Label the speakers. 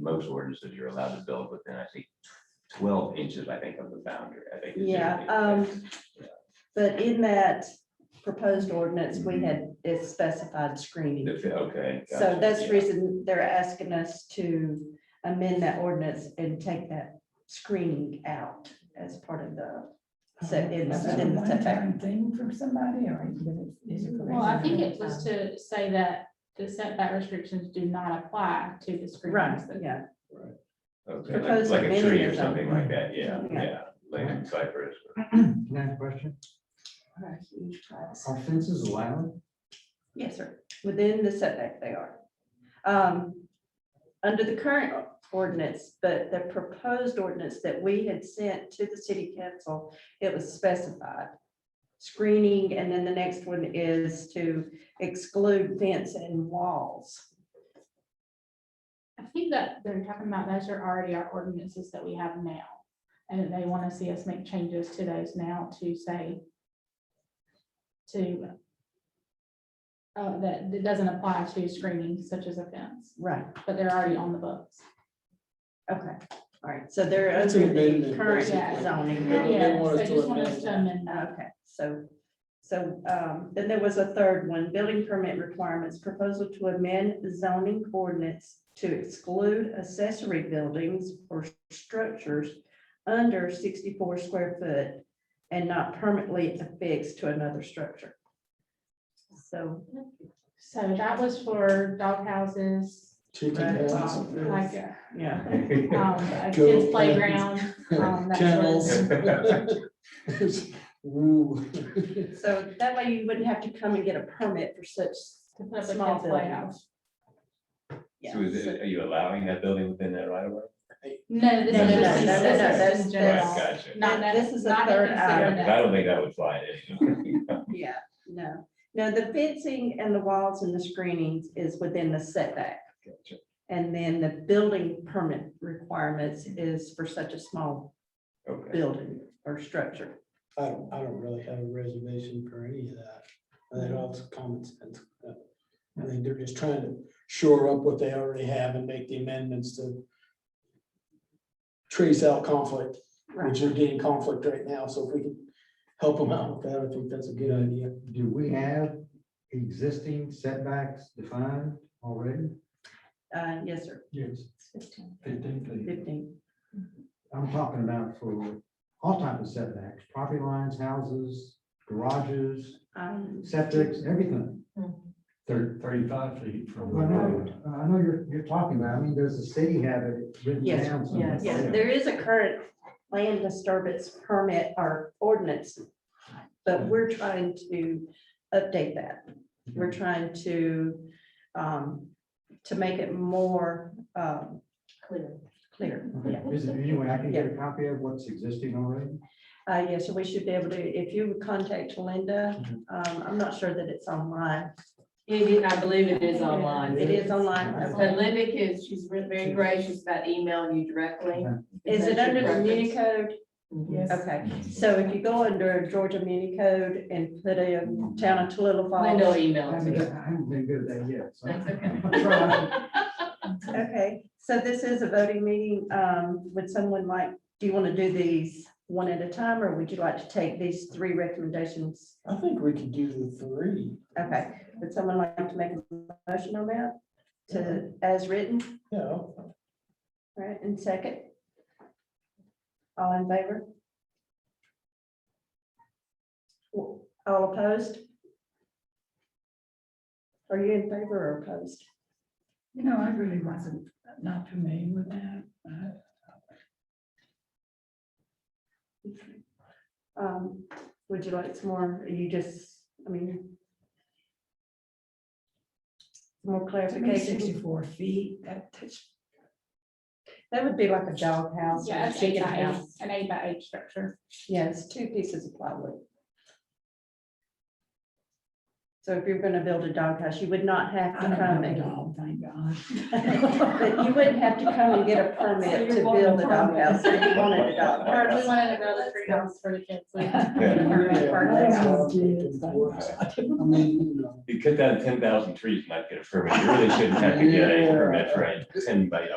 Speaker 1: most ordinances, you're allowed to build within, I think, twelve inches, I think, of the boundary, I think. is the
Speaker 2: Yeah,
Speaker 1: only-
Speaker 2: um, But in that proposed ordinance, we had, it specified screening.
Speaker 1: The- Okay.
Speaker 2: So
Speaker 1: gotcha,
Speaker 2: that's the
Speaker 1: yeah.
Speaker 2: reason they're asking us to amend that ordinance and take that screening out as part of the,
Speaker 3: Oh,
Speaker 2: so it's
Speaker 4: Is that Um, a
Speaker 2: within the setback.
Speaker 4: one-time Thing from somebody or is it? is it for
Speaker 3: Well, I think it
Speaker 4: reasonable
Speaker 3: was
Speaker 4: time?
Speaker 3: to say that the setback restrictions do not apply to the
Speaker 2: Right,
Speaker 3: screenings.
Speaker 2: yeah,
Speaker 1: Okay, like-
Speaker 2: proposed
Speaker 1: like a tree or
Speaker 2: amendment,
Speaker 1: something like that, yeah,
Speaker 2: Yeah.
Speaker 1: yeah, like in cypress.
Speaker 5: Can I ask a question?
Speaker 2: Right, he tries.
Speaker 5: Are fences allowed?
Speaker 2: Yes, sir, within the setback they are. Um, Under the current ordinance, but the proposed ordinance that we had sent to the city council, it was specified. Screening, and then the next one is to exclude fence and walls.
Speaker 3: I think that they're talking about those are already our ordinances that we have now. And they want to see us make changes to those now to say to uh, that it doesn't apply to screening such as a fence,
Speaker 2: Right.
Speaker 3: but they're already on the books.
Speaker 2: Okay, all right, so they're
Speaker 6: It's an
Speaker 2: under the
Speaker 6: amendment,
Speaker 2: current
Speaker 3: basically.
Speaker 2: zoning.
Speaker 6: Yeah, they
Speaker 3: Yeah, so
Speaker 6: want us
Speaker 3: they
Speaker 6: to
Speaker 3: just want us
Speaker 6: amend
Speaker 3: to
Speaker 6: that.
Speaker 3: amend that.
Speaker 2: Okay, so, so um, then there was a third one, building permit requirements, proposal to amend zoning ordinance to exclude accessory buildings or structures under sixty-four square foot and not permanently affixed to another structure. So,
Speaker 3: So that was for dog houses,
Speaker 6: Chicken
Speaker 2: Right.
Speaker 6: houses and
Speaker 3: like
Speaker 6: everything.
Speaker 3: uh,
Speaker 2: yeah,
Speaker 3: um, a
Speaker 6: Go
Speaker 3: kids
Speaker 6: fans.
Speaker 3: playground. um, that
Speaker 6: Kennels.
Speaker 3: was-
Speaker 6: Woo.
Speaker 2: so that way you wouldn't have to come and get a permit for such,
Speaker 3: To put up a
Speaker 2: Small
Speaker 3: kids playhouse.
Speaker 2: yeah.
Speaker 1: So is it, are you allowing that building within that right of way?
Speaker 3: No, this
Speaker 1: No,
Speaker 3: is
Speaker 1: no,
Speaker 3: just
Speaker 1: no, no, no,
Speaker 3: assessors
Speaker 2: that's-
Speaker 3: in
Speaker 1: Right,
Speaker 3: general.
Speaker 1: gotcha.
Speaker 3: Not that,
Speaker 2: This is the
Speaker 3: not
Speaker 2: third
Speaker 3: to consider
Speaker 2: item.
Speaker 1: Because I
Speaker 3: that.
Speaker 1: don't think that would fly in.
Speaker 2: Yeah, no, no, the fencing and the walls and the screenings is within the setback.
Speaker 1: Gotcha.
Speaker 2: And then the building permit requirements is for such a small
Speaker 1: Okay.
Speaker 2: building or structure.
Speaker 6: I don't, I don't really have a reservation for any of that. I think all it's common sense. I think they're just trying to shore up what they already have and make the amendments to trace out conflict, which are getting conflict right now. So if we can help them out with that, I think that's a good idea.
Speaker 5: Do we have existing setbacks defined already?
Speaker 2: Uh, yes, sir,
Speaker 5: Yes.
Speaker 2: fifteen.
Speaker 5: I'm talking about for all types of setbacks, property lines, houses, garages,
Speaker 2: Um,
Speaker 5: septics, everything.
Speaker 7: Thir- Thirty-five feet from the
Speaker 5: Well, I know,
Speaker 7: road.
Speaker 5: I know you're, you're talking about, I mean, does the city have it written
Speaker 2: Yes,
Speaker 5: down? somewhere?
Speaker 2: yeah, there is a current land disturbance permit or ordinance. But we're trying to update that. We're trying to, um, to make it more, um,
Speaker 4: Clear.
Speaker 2: clear, yeah.
Speaker 5: Okay, Is there any way I can get a copy of what's existing already?
Speaker 2: Uh, yes, so we should be able to, if you would contact Linda,
Speaker 5: Mhm.
Speaker 2: um, I'm not sure that it's online.
Speaker 8: It is, I believe it is online.
Speaker 2: It is online.
Speaker 8: So
Speaker 2: okay.
Speaker 8: Linda is, she's re- very gracious about emailing you directly.
Speaker 2: Is it
Speaker 8: That's
Speaker 2: under the
Speaker 8: your preference.
Speaker 2: muni code?
Speaker 8: Mhm.
Speaker 2: Okay, so if you go under Georgia muni code and put in town of Tallulah
Speaker 8: Linda will
Speaker 2: Falls.
Speaker 5: I
Speaker 8: email it to
Speaker 5: haven't,
Speaker 8: you.
Speaker 5: I haven't been good at that yet, so.
Speaker 8: That's okay.
Speaker 5: I'm trying.
Speaker 2: Okay, so this is a voting meeting. Um, would someone like, do you want to do these one at a time or would you like to take these three recommendations?
Speaker 6: I think we could do the three.
Speaker 2: Okay, would someone like to make a motion on that to, as written?
Speaker 6: Yeah,
Speaker 2: All Right, and second? All in favor? All opposed? Are you in favor or opposed?
Speaker 4: You know, I really wasn't, not familiar with that. Uh,
Speaker 2: Um, Would you like some more, or you just, I mean, more
Speaker 4: to me,
Speaker 2: clarification?
Speaker 4: Sixty-four feet, that touch.
Speaker 2: That would be like a dog house. or
Speaker 3: Yeah, it's eight
Speaker 2: chicken
Speaker 3: by eight,
Speaker 2: house.
Speaker 3: an eight by eight structure.
Speaker 2: Yeah, it's two pieces of plywood. So if you're gonna build a dog house, you would not have
Speaker 4: I
Speaker 2: to
Speaker 4: don't have
Speaker 2: come
Speaker 4: a
Speaker 2: and
Speaker 4: dog, thank God.
Speaker 2: But you wouldn't have to come and get a permit
Speaker 4: So
Speaker 2: to
Speaker 4: you're wanting
Speaker 2: build
Speaker 4: a
Speaker 2: a doghouse if you wanted a dog.
Speaker 3: Or we
Speaker 2: house.
Speaker 3: wanted to build a three house for the kids.
Speaker 6: Yeah. I mean, you know.
Speaker 1: You cut down ten thousand trees, and not get a permit. You really shouldn't have to get a
Speaker 6: Yeah.
Speaker 1: permit for a ten by